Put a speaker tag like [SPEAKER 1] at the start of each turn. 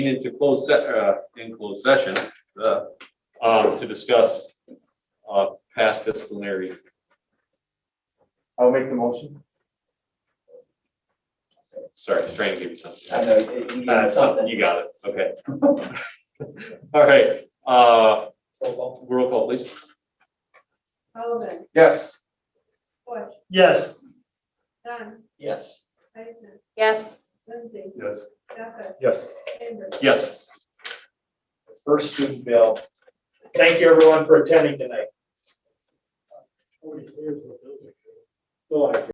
[SPEAKER 1] into closed se- uh, in closed session, uh, um, to discuss, uh, past disciplinary.
[SPEAKER 2] I'll make the motion.
[SPEAKER 1] Sorry, I was trying to give you something.
[SPEAKER 2] I know, you- you
[SPEAKER 1] Uh, something,
[SPEAKER 2] got something.
[SPEAKER 1] you got it, okay. All right, uh, roll call, please.
[SPEAKER 3] Sullivan,
[SPEAKER 2] Yes.
[SPEAKER 3] Bush,
[SPEAKER 4] Yes.
[SPEAKER 3] Dunn,
[SPEAKER 2] Yes.
[SPEAKER 3] Eisenman,
[SPEAKER 5] Yes.
[SPEAKER 3] Lindsay,
[SPEAKER 4] Yes.
[SPEAKER 3] Stefan,
[SPEAKER 4] Yes.
[SPEAKER 3] Chambers.
[SPEAKER 1] Yes,
[SPEAKER 2] First student bill. Thank you everyone for attending tonight.